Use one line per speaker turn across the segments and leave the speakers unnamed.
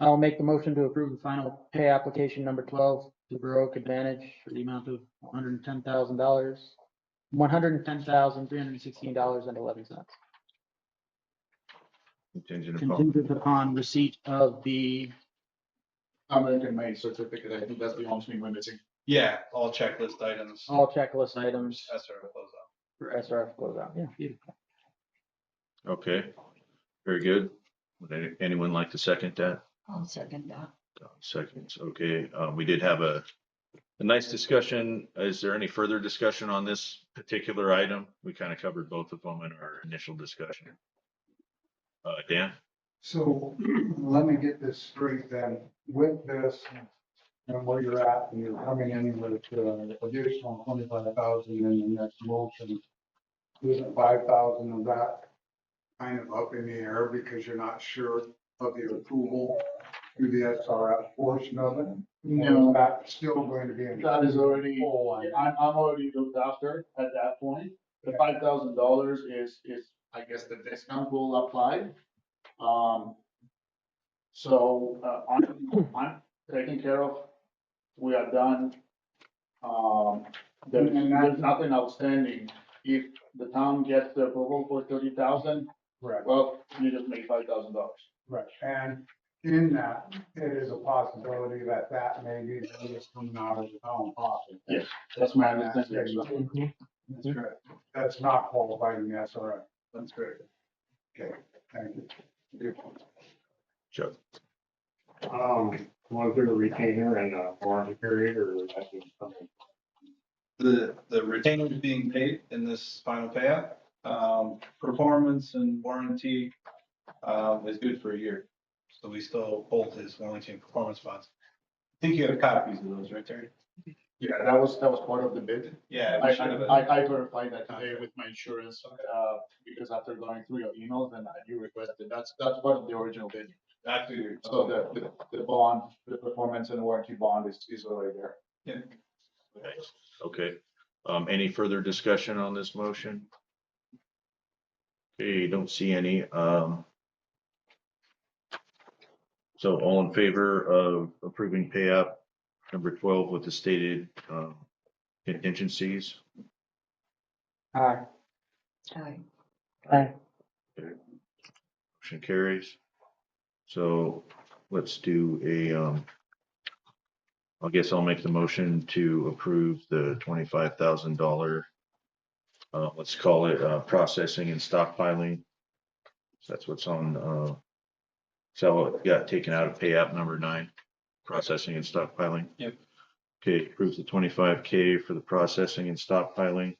I'll make the motion to approve the final pay application number 12 to Baroque Advantage for the amount of $110,000, $110,316.11.
Contingent upon,
Contingent upon receipt of the,
American made certificate, I think that's the only thing we're missing.
Yeah, all checklist items.
Oh.
all checklist items
That's our closeout.
for SRF closeout. Yeah, beautiful.
okay, very good. Would any- anyone like to second that?
I'll second that.
Uh, Seconds, okay, um, we did have a, a nice discussion. Is there any further discussion on this particular item? We kind of covered both of them in our initial discussion. Uh, Dan?
So let me get this straight then, with this and where you're at, and you're coming in with uh, additional twenty-five thousand in the next motion. Isn't five thousand of that kind of up in the air because you're not sure of the approval through the SRF portion of it? Or is that still going to be in.
That is already,
Oh, I-
I'm, I'm already looked after at that point. The five thousand dollars is, is, I guess the discount will apply. Um, so, uh, I'm, I'm taken care of. We are done. Um, there's,
And that-
there's nothing outstanding. If the town gets the approval for thirty thousand,
Correct.
well, you just make five thousand dollars.
Right, and in that, it is a possibility that that may be the biggest coming out of the town pocket.
Yes. That's my understanding. as well.
Mm-hmm.
That's correct. That's not qualifying the SRF.
That's correct.
Okay, thank you.
Chuck?
Um, was there a retainer and a warranty period or was that just something?
The, the retainer is being paid in this final payout. Um, performance and warranty, um, is good for a year. So we still hold his warranty and performance bonds. I think you have copies of those, right, Terry?
Yeah, that was, that was part of the bid.
Yeah.
I,
we should have a-
I, I verified that today with my insurance, uh, because after going through your emails and you requested, that's, that's part of the original bid.
That's weird.
So the, the, the bond, the performance and warranty bond is, is already there.
Thanks. Okay, um, any further discussion on this motion? Okay, don't see any, um. So all in favor of approving payout number twelve with the stated, um, contingencies?
Aye.
Aye.
Aye.
Motion carries. So let's do a, um, I guess I'll make the motion to approve the twenty-five thousand dollar, uh, let's call it, uh, processing and stockpiling. So that's what's on, uh, so it got taken out of pay app number nine, processing and stockpiling.
Yep.
Okay, approve the twenty-five K for the processing and stockpiling.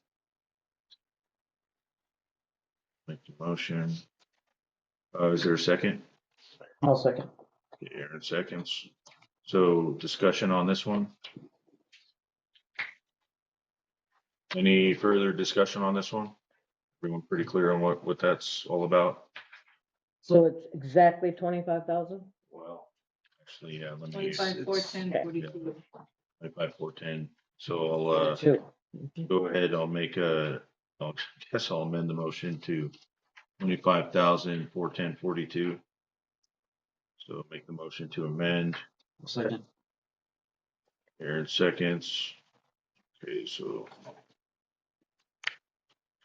Make the motion. Uh, is there a second?
I'll second.
Okay, Aaron seconds. So discussion on this one? Any further discussion on this one? Everyone pretty clear on what, what that's all about?
So it's exactly twenty-five thousand?
Well, actually, yeah, let me,
Twenty-five, four, ten, forty-two.
by four ten. So I'll, uh, go ahead, I'll make a, I'll, guess I'll amend the motion to twenty-five thousand, four ten, forty-two. So make the motion to amend.
Second.
Aaron seconds. Okay, so.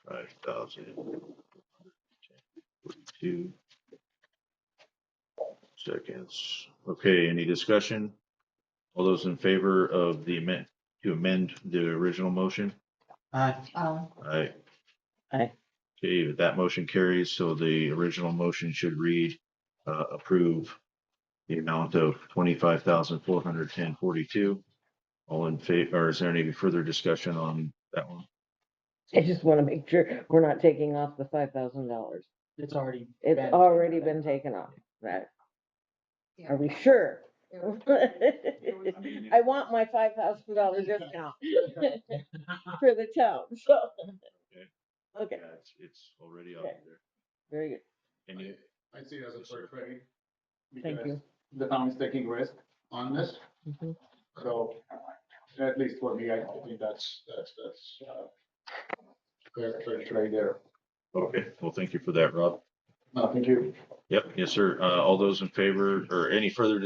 Five thousand. Forty-two. Seconds. Okay, any discussion? All those in favor of the amend, to amend the original motion?
Aye.
Aye.
Aye.
Aye.
Okay, that motion carries, so the original motion should read, uh, approve the amount of twenty-five thousand four hundred ten forty-two. All in favor, or is there any further discussion on that one?
I just want to make sure we're not taking off the five thousand dollars.
It's already.
It's
been-
already been taken off, right? Are we sure? I want my five thousand dollar discount for the town, so. Okay,
Yeah, it's, it's already out
Okay.
there.
very good.
Any,
I see it as a fair trade.
Thank
because
you.
The town is taking risk on this,
Mhm.
so at least for me, I think that's, that's, that's, uh, fair, fair trade there.
okay, well, thank you for that, Rob.
No, thank you.
Yep, yes, sir. Uh, all those in favor, or any further